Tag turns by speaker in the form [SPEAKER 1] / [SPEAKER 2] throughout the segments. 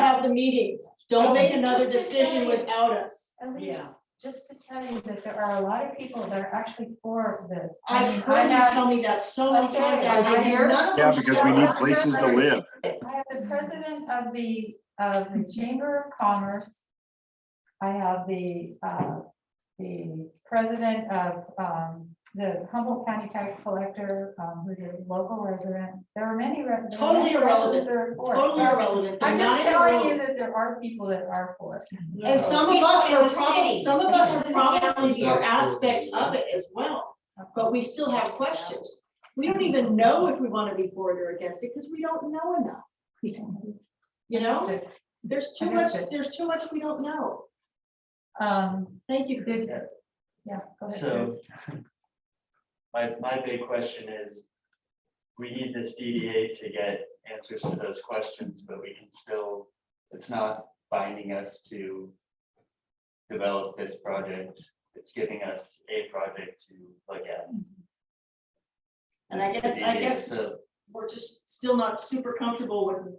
[SPEAKER 1] have the meetings. Don't make
[SPEAKER 2] This is
[SPEAKER 1] another
[SPEAKER 2] the
[SPEAKER 1] decision
[SPEAKER 2] time.
[SPEAKER 1] without us.
[SPEAKER 2] Elise,
[SPEAKER 3] Yeah.
[SPEAKER 2] just to tell you that there are a lot of people that are actually for this. I mean,
[SPEAKER 1] I've
[SPEAKER 2] I
[SPEAKER 1] heard you
[SPEAKER 2] have-
[SPEAKER 1] tell me that so many
[SPEAKER 2] Okay.
[SPEAKER 1] times. and I did none of
[SPEAKER 4] Yeah,
[SPEAKER 1] them.
[SPEAKER 4] because we need places to live.
[SPEAKER 2] I have the president of the, of the Chamber of Commerce. I have the, uh, the president of, um, the Humboldt County Tax Collector, um, who's a local resident. There are many. re- there are many
[SPEAKER 1] Totally irrelevant.
[SPEAKER 2] residents that are for it.
[SPEAKER 1] Totally irrelevant. They're
[SPEAKER 2] I'm
[SPEAKER 1] not
[SPEAKER 2] just telling you
[SPEAKER 1] irrelevant.
[SPEAKER 2] that there are people that are for it.
[SPEAKER 1] And some of us
[SPEAKER 5] People in
[SPEAKER 1] are
[SPEAKER 5] the
[SPEAKER 1] probably,
[SPEAKER 5] city.
[SPEAKER 1] some of us are
[SPEAKER 5] People in the
[SPEAKER 1] probably
[SPEAKER 5] city.
[SPEAKER 1] for aspects of it as well, but we still have questions. We don't even know if we want to be for it or against it because we don't know enough, you know?
[SPEAKER 2] Understood.
[SPEAKER 1] There's too much,
[SPEAKER 2] Understood.
[SPEAKER 1] there's too much we don't know.
[SPEAKER 2] Um,
[SPEAKER 1] Thank you, Chris.
[SPEAKER 2] this, yeah. go ahead,
[SPEAKER 6] So. My, my big question is, we need this DDA to get answers to those questions, but we can still, it's not binding us to. Develop this project, it's giving us a project to look at.
[SPEAKER 1] And I guess, I
[SPEAKER 6] DDA,
[SPEAKER 1] guess
[SPEAKER 6] So,
[SPEAKER 1] we're just still not super comfortable with,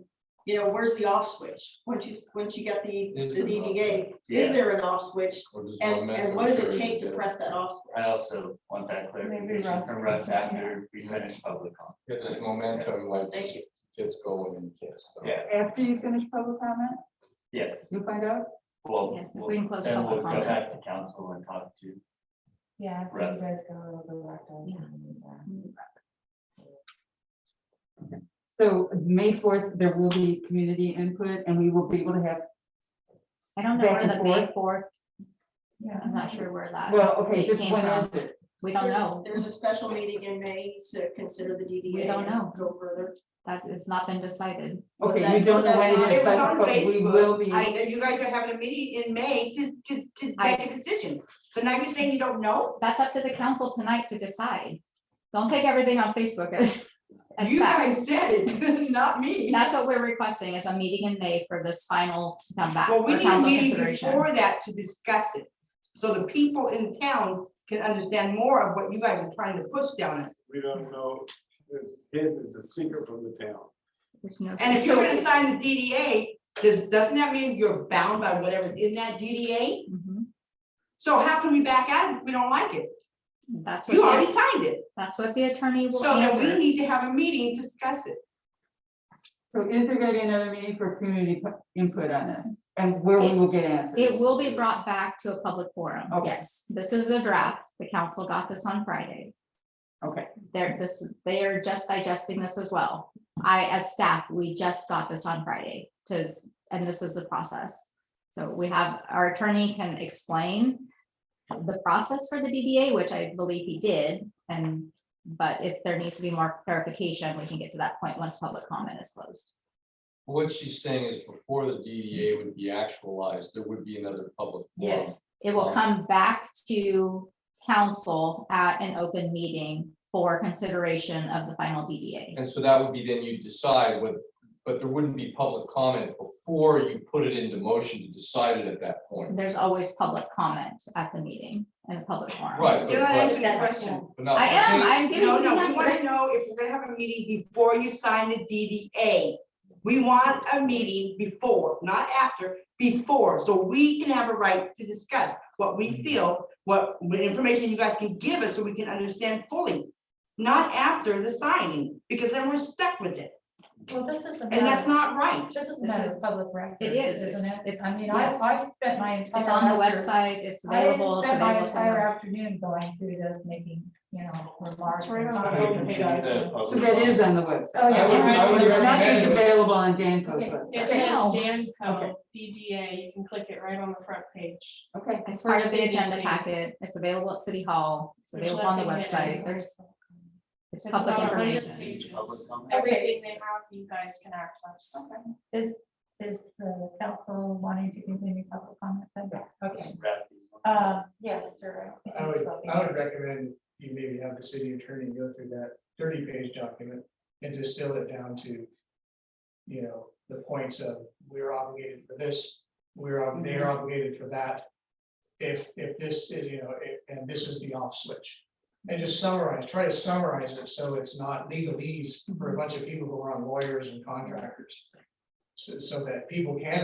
[SPEAKER 1] you know, where's the off switch? Once you, once you get the, the
[SPEAKER 5] Is there an off
[SPEAKER 1] DDA, is
[SPEAKER 6] Yeah.
[SPEAKER 1] there an off switch? And, and what does it take to press that off?
[SPEAKER 6] I also want that
[SPEAKER 2] Maybe
[SPEAKER 6] clarification
[SPEAKER 2] Russ
[SPEAKER 6] from
[SPEAKER 2] can
[SPEAKER 6] Russ
[SPEAKER 2] take it.
[SPEAKER 6] after we finish public comment.
[SPEAKER 5] Get this momentum, like,
[SPEAKER 1] Thank you.
[SPEAKER 5] gets going and gets. going.
[SPEAKER 6] Yeah.
[SPEAKER 2] After you finish public comment,
[SPEAKER 6] Yes,
[SPEAKER 2] you'll find out?
[SPEAKER 6] well.
[SPEAKER 3] Yes, if
[SPEAKER 6] we'll-
[SPEAKER 3] we can close
[SPEAKER 6] then we'll
[SPEAKER 3] public
[SPEAKER 6] Go
[SPEAKER 3] comment.
[SPEAKER 6] back to council and talk to
[SPEAKER 2] Yeah. I
[SPEAKER 6] Right.
[SPEAKER 2] think you guys got a little bit left out.
[SPEAKER 7] So May fourth, there will be community input and we will be able to have,
[SPEAKER 3] I don't know
[SPEAKER 7] Back
[SPEAKER 3] where
[SPEAKER 7] and
[SPEAKER 3] the May fourth,
[SPEAKER 2] Yeah.
[SPEAKER 3] I'm not sure where that,
[SPEAKER 7] well, okay,
[SPEAKER 3] It
[SPEAKER 7] just
[SPEAKER 3] came
[SPEAKER 7] when
[SPEAKER 3] from-
[SPEAKER 7] is it?
[SPEAKER 3] we don't know.
[SPEAKER 1] There's a special meeting in May to consider the DDA.
[SPEAKER 3] We don't know.
[SPEAKER 1] and Go further.
[SPEAKER 3] That has not been decided.
[SPEAKER 1] Was that-
[SPEAKER 7] Okay, you don't
[SPEAKER 1] was
[SPEAKER 7] know
[SPEAKER 1] that
[SPEAKER 7] when
[SPEAKER 1] not-
[SPEAKER 7] it
[SPEAKER 1] it
[SPEAKER 7] is,
[SPEAKER 1] was
[SPEAKER 7] but
[SPEAKER 1] on
[SPEAKER 7] but we
[SPEAKER 1] Facebook.
[SPEAKER 7] will be,
[SPEAKER 3] I,
[SPEAKER 5] That You guys are having a meeting in May to, to, to
[SPEAKER 3] I-
[SPEAKER 5] make a decision. So now you're saying you don't know?
[SPEAKER 3] that's up to the council tonight to decide. Don't take everything on Facebook as, as
[SPEAKER 5] You
[SPEAKER 3] fact.
[SPEAKER 5] guys said it, not me.
[SPEAKER 3] That's what we're requesting is a meeting in May for this final to come back.
[SPEAKER 5] Well, we
[SPEAKER 3] for
[SPEAKER 5] need a
[SPEAKER 3] council
[SPEAKER 5] meeting
[SPEAKER 3] consideration.
[SPEAKER 5] before that to discuss it. So the people in town can understand more of what you guys are trying to push down us.
[SPEAKER 8] We don't know, it's hidden, it's a secret from the town.
[SPEAKER 3] There's no.
[SPEAKER 5] And if you're gonna sign the DDA, does, doesn't that mean you're bound by whatever's in that DDA?
[SPEAKER 3] Mhm.
[SPEAKER 5] So how can we back out if we don't like it?
[SPEAKER 3] That's
[SPEAKER 5] You
[SPEAKER 3] what,
[SPEAKER 5] already
[SPEAKER 3] the-
[SPEAKER 5] signed it.
[SPEAKER 3] that's what the attorney will
[SPEAKER 5] So then we
[SPEAKER 3] answer.
[SPEAKER 5] need to have a meeting, to discuss it.
[SPEAKER 7] so is there gonna be another meeting for community pu- input on this? And where we
[SPEAKER 3] It-
[SPEAKER 7] will get answers?
[SPEAKER 3] It will be brought back to a public forum.
[SPEAKER 7] Okay.
[SPEAKER 3] Yes, this is a draft. The council got this on Friday.
[SPEAKER 7] Okay.
[SPEAKER 3] They're this, they are just digesting this as well. I, as staff, we just got this on Friday to, and this is the process. So we have, our attorney can explain the process for the DDA, which I believe he did, and, but if there needs to be more clarification, we can get to that point once public comment is closed.
[SPEAKER 9] What she's saying is before the DDA would be actualized, there would be another public. forum.
[SPEAKER 5] Yes.
[SPEAKER 3] It will come back to council at an open meeting for consideration of the final DDA.
[SPEAKER 9] And so that would be then you decide what, but there wouldn't be public comment before you put it into motion to decide it at that point.
[SPEAKER 3] There's always public comment at the meeting and a public forum.
[SPEAKER 9] Right. but-
[SPEAKER 5] You're not
[SPEAKER 9] but-
[SPEAKER 5] answering the question.
[SPEAKER 9] but not-
[SPEAKER 3] I am,
[SPEAKER 9] think-
[SPEAKER 3] I'm giving
[SPEAKER 5] No,
[SPEAKER 3] you the
[SPEAKER 5] no, we want
[SPEAKER 3] answer.
[SPEAKER 5] to know if we're gonna have a meeting before you sign the DDA. We want a meeting before, not after, before, so we can have a right to discuss what we feel, what, what information you guys can give us so we can understand fully. Not after the signing, because then we're stuck with it,
[SPEAKER 2] Well, this is.
[SPEAKER 5] and that's not right.
[SPEAKER 2] This is
[SPEAKER 3] This
[SPEAKER 2] not a
[SPEAKER 3] is-
[SPEAKER 2] public record.
[SPEAKER 3] it is,
[SPEAKER 2] isn't
[SPEAKER 3] it's-
[SPEAKER 2] it?
[SPEAKER 3] it's-
[SPEAKER 2] I mean, I,
[SPEAKER 3] yes.
[SPEAKER 2] I spent my entire.
[SPEAKER 3] It's on the
[SPEAKER 2] after-
[SPEAKER 3] website, it's
[SPEAKER 2] I didn't
[SPEAKER 3] available. it's
[SPEAKER 2] spend my entire
[SPEAKER 3] available somewhere.
[SPEAKER 2] afternoon going through this, making, you know, remarks.
[SPEAKER 1] right
[SPEAKER 2] and
[SPEAKER 1] on the
[SPEAKER 6] I
[SPEAKER 2] comments.
[SPEAKER 6] can see the public
[SPEAKER 7] So that is
[SPEAKER 6] comment.
[SPEAKER 7] on the website.
[SPEAKER 2] Oh, yeah.
[SPEAKER 7] It's
[SPEAKER 2] I would- I would
[SPEAKER 7] not
[SPEAKER 9] recommend
[SPEAKER 7] just
[SPEAKER 9] it.
[SPEAKER 7] available on Danco's
[SPEAKER 2] Okay.
[SPEAKER 7] website.
[SPEAKER 10] It
[SPEAKER 3] Okay.
[SPEAKER 10] says
[SPEAKER 3] No.
[SPEAKER 7] Okay.
[SPEAKER 10] Danco, DDA, you can click it right on the front page.
[SPEAKER 7] Okay,
[SPEAKER 3] It's part of the
[SPEAKER 10] First
[SPEAKER 3] agenda
[SPEAKER 10] meeting.
[SPEAKER 3] packet. It's available at City Hall. It's
[SPEAKER 10] There's
[SPEAKER 3] available on the
[SPEAKER 10] nothing
[SPEAKER 3] website.
[SPEAKER 10] hidden.
[SPEAKER 3] There's, it's
[SPEAKER 10] It's
[SPEAKER 3] public
[SPEAKER 10] not a hundred
[SPEAKER 3] information.
[SPEAKER 10] pages.
[SPEAKER 6] Public comment.
[SPEAKER 10] Everything they have, you guys can access.
[SPEAKER 2] Is, is the council wanting to continue public comment? then? Okay,
[SPEAKER 6] wrap these up.
[SPEAKER 2] uh, yes, sir. think
[SPEAKER 8] I
[SPEAKER 2] it's
[SPEAKER 8] would,
[SPEAKER 2] about the-
[SPEAKER 8] I would recommend you maybe have the city attorney go through that thirty page document and distill it down to. You know, the points of we're obligated for this, we're, ob- they're obligated for that. If, if this is, you know, if- and this is the off switch. And just summarize, try to summarize it so it's not legalese for a bunch of people who are on lawyers and contractors. So, so that people can